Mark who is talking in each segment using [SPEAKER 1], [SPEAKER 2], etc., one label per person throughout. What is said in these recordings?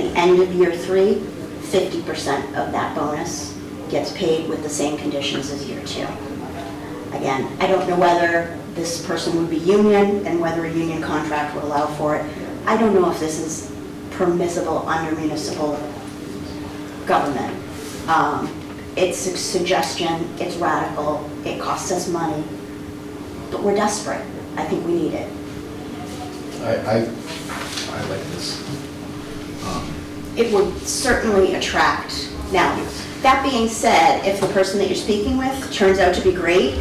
[SPEAKER 1] end of year three, 50% of that bonus gets paid with the same conditions as year two. Again, I don't know whether this person would be union and whether a union contract would allow for it. I don't know if this is permissible under municipal government. Um, It's a suggestion, it's radical, it costs us money, but we're desperate. I think we need it.
[SPEAKER 2] I, I, I like this. Um,
[SPEAKER 1] it would certainly attract. Now, that being said, if the person that you're speaking with turns out to be great,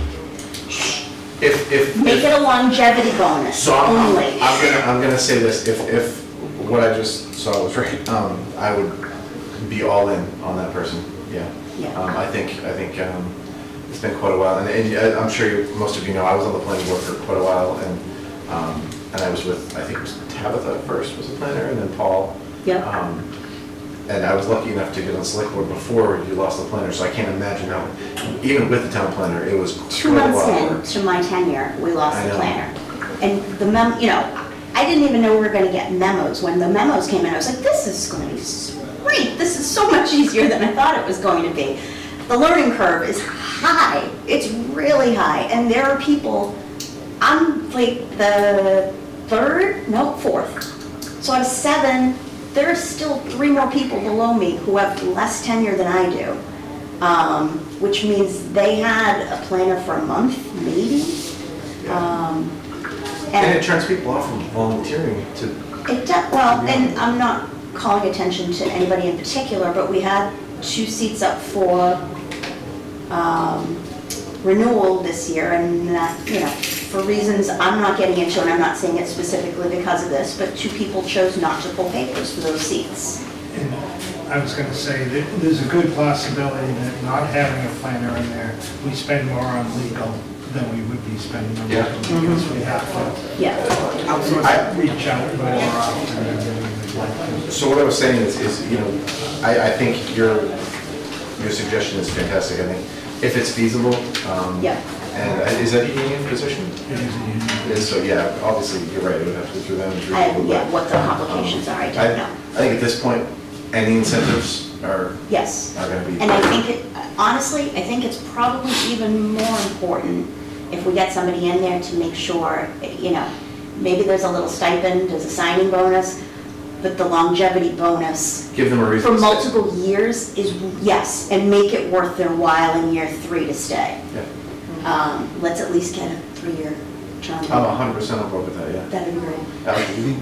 [SPEAKER 2] If, if.
[SPEAKER 1] make it a longevity bonus
[SPEAKER 2] So I'm, I'm-
[SPEAKER 1] only.
[SPEAKER 2] I'm gonna, I'm gonna say this, if, if what I just saw was right, um, I would be all in on that person, yeah.
[SPEAKER 1] Yeah.
[SPEAKER 2] Um, I think, I think, um, it's been quite a while, and, and I- I'm sure you, most of you know, I was on the planning board for quite a while, and, um, and I was with, I think it was Tabitha first was the planner, and then Paul.
[SPEAKER 1] Yep.
[SPEAKER 2] Um, And I was lucky enough to get on select board before you lost the planner, so I can't imagine how, even with the town planner, it was
[SPEAKER 1] Two
[SPEAKER 2] quite a
[SPEAKER 1] months
[SPEAKER 2] while.
[SPEAKER 1] in to my tenure, we lost
[SPEAKER 2] I
[SPEAKER 1] the
[SPEAKER 2] know.
[SPEAKER 1] planner. And the mem, you know, I didn't even know we were gonna get memos. When the memos came in, I was like, this is gonna be s- great. This is so much easier than I thought it was going to be. The learning curve is high. It's really high. And there are people, I'm like the third, no, fourth. So out of seven, there are still three more people below me who have less tenure than I do. Um, Which means they had a planner for a month, maybe.
[SPEAKER 2] Yeah.
[SPEAKER 1] Um,
[SPEAKER 2] And it
[SPEAKER 1] And
[SPEAKER 2] turns people off from volunteering to,
[SPEAKER 1] it, does- well, and I'm not calling attention to anybody in particular, but we had two seats up for um, renewal this year, and that, you know, for reasons I'm not getting into, and I'm not saying it specifically because of this, but two people chose not to pull papers for those seats.
[SPEAKER 3] And I was gonna say that there's a good possibility that not having a planner in there, we spend more on legal than we would be spending on
[SPEAKER 2] Yeah.
[SPEAKER 3] legal because we have to
[SPEAKER 1] Yeah.
[SPEAKER 2] I-
[SPEAKER 3] outsource, reach out more often than we'd like.
[SPEAKER 2] so what I was saying is, is, you know, I, I think your, your suggestion is fantastic, I think, if it's feasible. um,
[SPEAKER 1] Yeah.
[SPEAKER 2] And I- is that a union position?
[SPEAKER 3] to. It is a union.
[SPEAKER 2] And so, yeah, obviously, you're right, it would have to go through them. through
[SPEAKER 1] I-
[SPEAKER 2] people,
[SPEAKER 1] yeah,
[SPEAKER 2] but,
[SPEAKER 1] what the
[SPEAKER 2] um,
[SPEAKER 1] complications are, I don't know.
[SPEAKER 2] I think at this point, any incentives are,
[SPEAKER 1] Yes.
[SPEAKER 2] are gonna be.
[SPEAKER 1] And I think, it honestly, I think it's probably even more important if we get somebody in there to make sure, you know, maybe there's a little stipend, there's a signing bonus, but the longevity bonus
[SPEAKER 2] Give them a reason.
[SPEAKER 1] for
[SPEAKER 2] to stay.
[SPEAKER 1] multiple years is, yes, and make it worth their while in year three to stay.
[SPEAKER 2] Yeah,
[SPEAKER 1] Um, Let's at least get a three-year term.
[SPEAKER 2] I'm hundred percent on board with that, yeah.
[SPEAKER 1] That'd be great.
[SPEAKER 2] Alex, you think-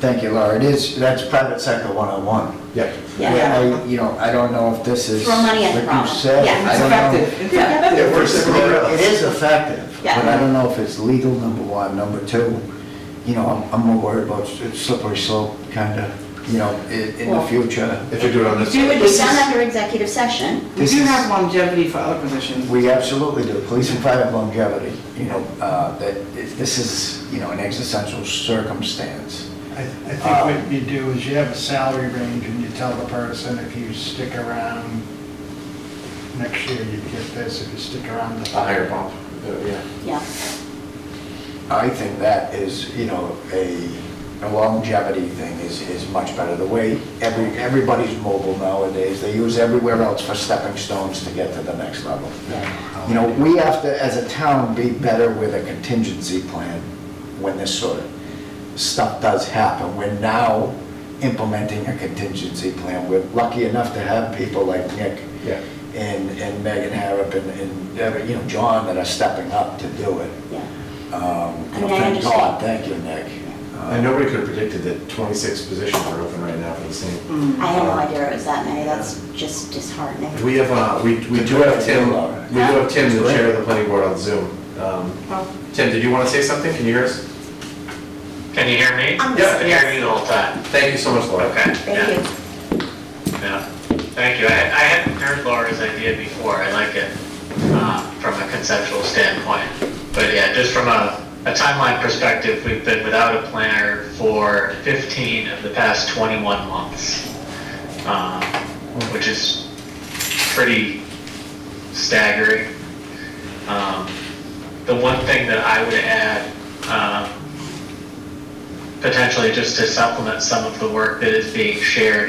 [SPEAKER 4] Thank you, Laura. It is, that's private sector 101.
[SPEAKER 2] Yeah.
[SPEAKER 1] Yeah.
[SPEAKER 4] I- You know, I don't know if this is
[SPEAKER 1] Throw money at the
[SPEAKER 4] what you
[SPEAKER 1] problem.
[SPEAKER 4] said.
[SPEAKER 1] Yeah.
[SPEAKER 4] I
[SPEAKER 5] It's
[SPEAKER 4] don't know.
[SPEAKER 5] effective. It's
[SPEAKER 1] Yeah.
[SPEAKER 5] effective.
[SPEAKER 2] It works everywhere else.
[SPEAKER 4] It is effective, but
[SPEAKER 1] Yeah.
[SPEAKER 4] I don't know if it's legal, number one. Number two, you know, I'm- I'm more worried about s- slippery slope, kind of, you know, i- in the
[SPEAKER 1] Well-
[SPEAKER 4] future.
[SPEAKER 2] If you do it on this.
[SPEAKER 5] Do it
[SPEAKER 1] It'd be
[SPEAKER 5] This
[SPEAKER 1] done
[SPEAKER 5] is-
[SPEAKER 1] under executive session.
[SPEAKER 5] We
[SPEAKER 4] This
[SPEAKER 5] do
[SPEAKER 4] is-
[SPEAKER 5] have longevity for other positions.
[SPEAKER 4] We absolutely do. Police and fire have longevity, you know, uh, that if this is, you know, an existential circumstance.
[SPEAKER 3] I, I think what you do is you have a salary range and you tell the person if you stick around next year, you get this, if you stick around.
[SPEAKER 2] A higher bump, uh, yeah.
[SPEAKER 1] Yeah.
[SPEAKER 4] I think that is, you know, a a longevity thing is, is much better. The way every, everybody's mobile nowadays, they use everywhere else for stepping stones to get to the next level. You know, we have to, as a town, be better with a contingency plan when this sort of stuff does happen. We're now implementing a contingency plan. We're lucky enough to have people like Nick
[SPEAKER 2] Yeah.
[SPEAKER 4] and, and Megan Harrop and, and, uh, you know, John that are stepping up to do it.
[SPEAKER 1] Yeah.
[SPEAKER 4] Um,
[SPEAKER 1] I
[SPEAKER 4] you know,
[SPEAKER 1] mean, I
[SPEAKER 4] Thank God,
[SPEAKER 1] understand.
[SPEAKER 4] thank you, Nick.
[SPEAKER 2] And Uh, nobody could have predicted that 26 positions are open right now for the same.
[SPEAKER 1] I had no idea it was that many. That's just disheartening.
[SPEAKER 2] We have, uh, we, we do have Tim, we do have Tim, the chair of the planning board on Zoom. Um, Tim, did you want to say something? Can you hear us?
[SPEAKER 6] Can you hear me?
[SPEAKER 1] I'm
[SPEAKER 6] I've been
[SPEAKER 1] listening.
[SPEAKER 6] hearing you the whole time.
[SPEAKER 2] Thank you so much, Laura.
[SPEAKER 6] Okay.
[SPEAKER 1] Thank you.
[SPEAKER 6] Yeah, yeah. Thank you. I I hadn't heard Laura's idea before. I like it uh, from a conceptual standpoint. But yeah, just from a a timeline perspective, we've been without a planner for 15 of the past 21 months, um, which is pretty staggering. Um, The one thing that I would add um, potentially just to supplement some of the work that is being shared